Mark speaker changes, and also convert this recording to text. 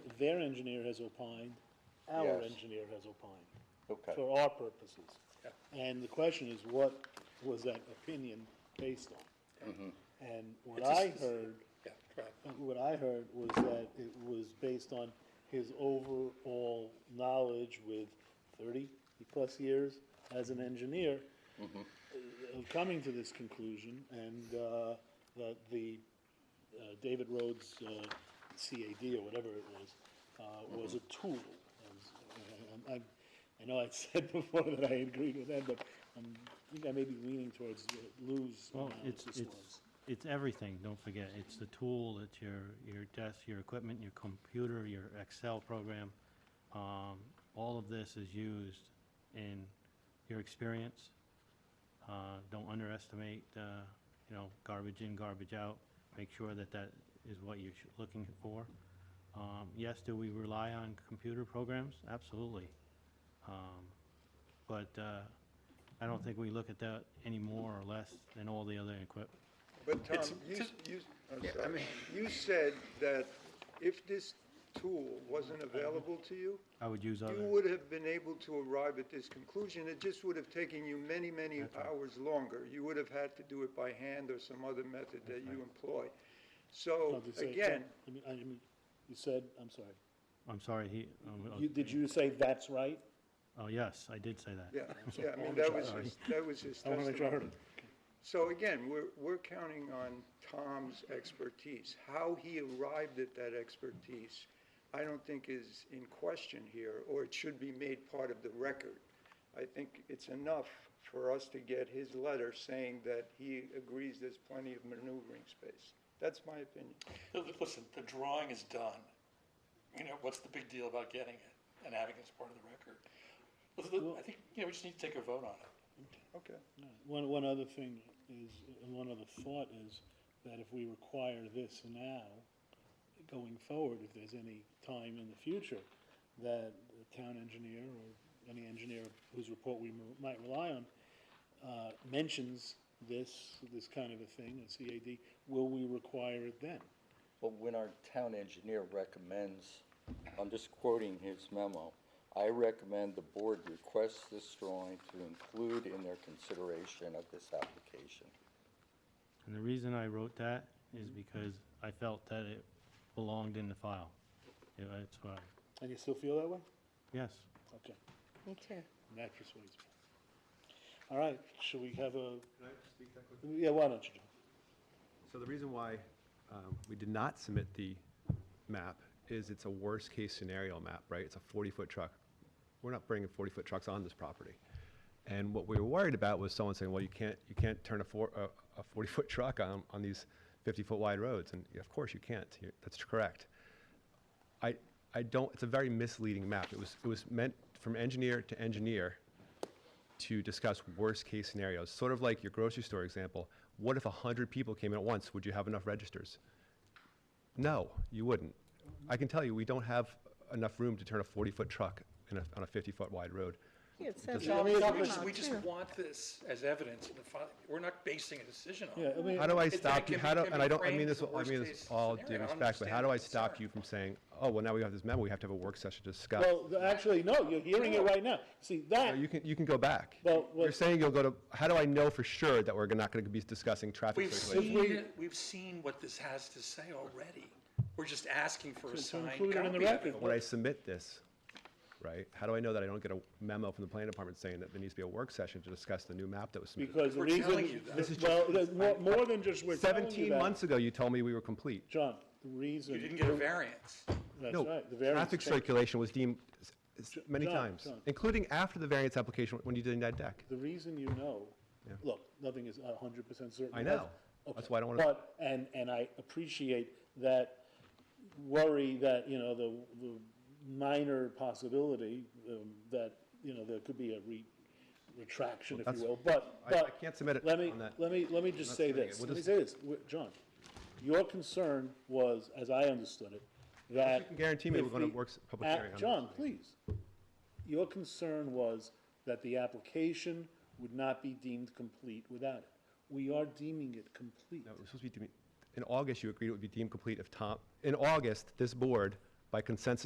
Speaker 1: their engineer has opined, our
Speaker 2: Yes.
Speaker 1: engineer has opined,
Speaker 2: Okay,
Speaker 1: for our purposes. And the question is, what was that opinion based
Speaker 2: Mm-hmm.
Speaker 1: on? And what I heard,
Speaker 3: Yeah, right.
Speaker 1: what I heard was that it was based on his overall knowledge with thirty-plus years as an engineer
Speaker 2: Mm-hmm.
Speaker 1: uh, of coming to this conclusion, and uh, that the uh, David Rhodes uh, CAD or whatever it was, uh, was a tool. I was- I, I- I know I said before that I agreed with that, but I'm- I think I may be leaning towards Lou's
Speaker 4: Well,
Speaker 1: analysis
Speaker 4: it's,
Speaker 1: was.
Speaker 4: it's, it's everything, don't forget. It's the tool, it's your, your desk, your equipment, your computer, your Excel program. Um, all of this is used in your experience. Uh, don't underestimate, uh, you know, garbage in, garbage out. Make sure that that is what you're sh- looking for. Um, yes, do we rely on computer programs? Absolutely. Um, but, uh, I don't think we look at that any more or less than all the other equipment.
Speaker 2: but Tom,
Speaker 3: It's-
Speaker 2: you, s- you, s- I'm
Speaker 3: Yeah, I
Speaker 2: sorry.
Speaker 3: mean-
Speaker 2: You said that if this tool wasn't available to you,
Speaker 4: I would use
Speaker 2: you
Speaker 4: other,
Speaker 2: would have been able to arrive at this conclusion. It just would have taken you many, many hours longer. You would have had to do it by hand or some other method that you employ. So,
Speaker 1: Well, to say-
Speaker 2: again,
Speaker 1: I mean, I mean, you said, I'm sorry,
Speaker 4: I'm sorry, he, um,
Speaker 1: you, did you say that's right?
Speaker 4: oh, yes, I did say that.
Speaker 2: yeah, yeah, I mean, that was his, that was his
Speaker 1: I want to make sure I
Speaker 2: testimony.
Speaker 1: heard it.
Speaker 2: So again, we're, we're counting on Tom's expertise. How he arrived at that expertise, I don't think is in question here, or it should be made part of the record. I think it's enough for us to get his letter saying that he agrees there's plenty of maneuvering space. That's my opinion.
Speaker 3: Listen, the drawing is done. You know, what's the big deal about getting it and having it as part of the record? Listen, I think, you know, we just need to take a vote on it.
Speaker 2: Okay.
Speaker 1: Uh, One, one other thing is, and one other thought is, that if we require this now, going forward, if there's any time in the future, that the town engineer or any engineer whose report we mo- might rely on, uh, mentions this, this kind of a thing, a CAD, will we require it then?
Speaker 5: But when our town engineer recommends, I'm just quoting his memo, "I recommend the board request this drawing to include in their consideration of this application."
Speaker 4: And the reason I wrote that is because I felt that it belonged in the file. Yeah, that's why,
Speaker 1: And you still feel that way?
Speaker 4: yes,
Speaker 1: Okay.
Speaker 6: Me too.
Speaker 1: And That persuades me. All right, shall we have a, yeah, why don't you? John?
Speaker 7: So the reason why um, we did not submit the map is it's a worst-case scenario map, right? It's a 40-foot truck. We're not bringing 40-foot trucks on this property. And what we were worried about was someone saying, well, you can't, you can't turn a four, a- a 40-foot truck on, on these 50-foot wide roads. And of course you can't. You're- That's correct. I, I don't, it's a very misleading map. It was, it was meant from engineer to engineer to discuss worst-case scenarios, sort of like your grocery store example. What if 100 people came in at once? Would you have enough registers? No, you wouldn't. I can tell you, we don't have enough room to turn a 40-foot truck in a, on a 50-foot wide road.
Speaker 6: It says
Speaker 3: I
Speaker 6: all
Speaker 3: mean,
Speaker 6: summer,
Speaker 3: we just, we just
Speaker 6: too.
Speaker 3: want this as evidence in the file. We're not basing a decision on
Speaker 1: Yeah, I
Speaker 3: it.
Speaker 1: mean,
Speaker 7: How do I
Speaker 3: It's-
Speaker 7: stop
Speaker 3: it
Speaker 7: you,
Speaker 3: can
Speaker 7: how
Speaker 3: be-
Speaker 7: do,
Speaker 3: can
Speaker 7: and
Speaker 3: be
Speaker 7: I don't, I
Speaker 3: framed
Speaker 7: mean this,
Speaker 3: as a
Speaker 7: I mean this
Speaker 3: worst-case
Speaker 7: all due
Speaker 3: scenario. I
Speaker 7: respect, but how do I
Speaker 3: understand the
Speaker 7: stop
Speaker 3: concern.
Speaker 7: you from saying, oh, well, now we have this memo, we have to have a work session to discuss?
Speaker 1: Well, th- actually, no, you're hearing it right now. See,
Speaker 7: No,
Speaker 1: that,
Speaker 7: You can, you can go back.
Speaker 1: Well,
Speaker 7: You're
Speaker 1: what-
Speaker 7: saying you'll go to, how do I know for sure that we're not going to be discussing traffic
Speaker 3: We've
Speaker 7: circulation?
Speaker 3: seen, it. we've seen what this has to say already. We're just asking for a
Speaker 1: to
Speaker 3: signed
Speaker 1: include it in the
Speaker 3: copy of
Speaker 1: record.
Speaker 3: it.
Speaker 7: When I submit this, right, how do I know that I don't get a memo from the planning department saying that there needs to be a work session to discuss the new map that was submitted?
Speaker 1: because the
Speaker 3: We're
Speaker 1: reason.
Speaker 3: telling you that. This
Speaker 7: is
Speaker 1: Well,
Speaker 7: just-
Speaker 1: there's more, more than just we're telling you
Speaker 7: Seventeen
Speaker 1: that.
Speaker 7: months ago, you told me we were complete.
Speaker 1: John, the reason.
Speaker 3: You didn't get a variance.
Speaker 1: That's
Speaker 7: No,
Speaker 1: right, the variance.
Speaker 7: traffic
Speaker 1: changed.
Speaker 7: circulation was deemed s- s- many
Speaker 1: John,
Speaker 7: times,
Speaker 1: John.
Speaker 7: including after the variance application when you did that deck.
Speaker 1: The reason you know, look, nothing is a hundred percent certain.
Speaker 7: I know. That's why I don't wanna-
Speaker 1: But, and, and I appreciate that worry that, you know, the, the minor possibility, um, that, you know, there could be a re, retraction, if you
Speaker 7: Well,
Speaker 1: will, but,
Speaker 7: I- I
Speaker 1: but.
Speaker 7: can't submit it
Speaker 1: Let me,
Speaker 7: on that.
Speaker 1: let me, let me just
Speaker 7: not
Speaker 1: say
Speaker 7: submitting
Speaker 1: this,
Speaker 7: it. We'll
Speaker 1: let me
Speaker 7: just-
Speaker 1: say this, Wait, John, your concern was, as I understood it, that.
Speaker 7: You can guarantee me
Speaker 1: if
Speaker 7: we're gonna
Speaker 1: the-
Speaker 7: work s- public
Speaker 1: Uh,
Speaker 7: hearing on
Speaker 1: John,
Speaker 7: this.
Speaker 1: please. Your concern was that the application would not be deemed complete without it. We are deeming it complete.
Speaker 7: No, it was supposed to be, deemed- in August, you agreed it would be deemed complete if Tom, in August, this board, by consensus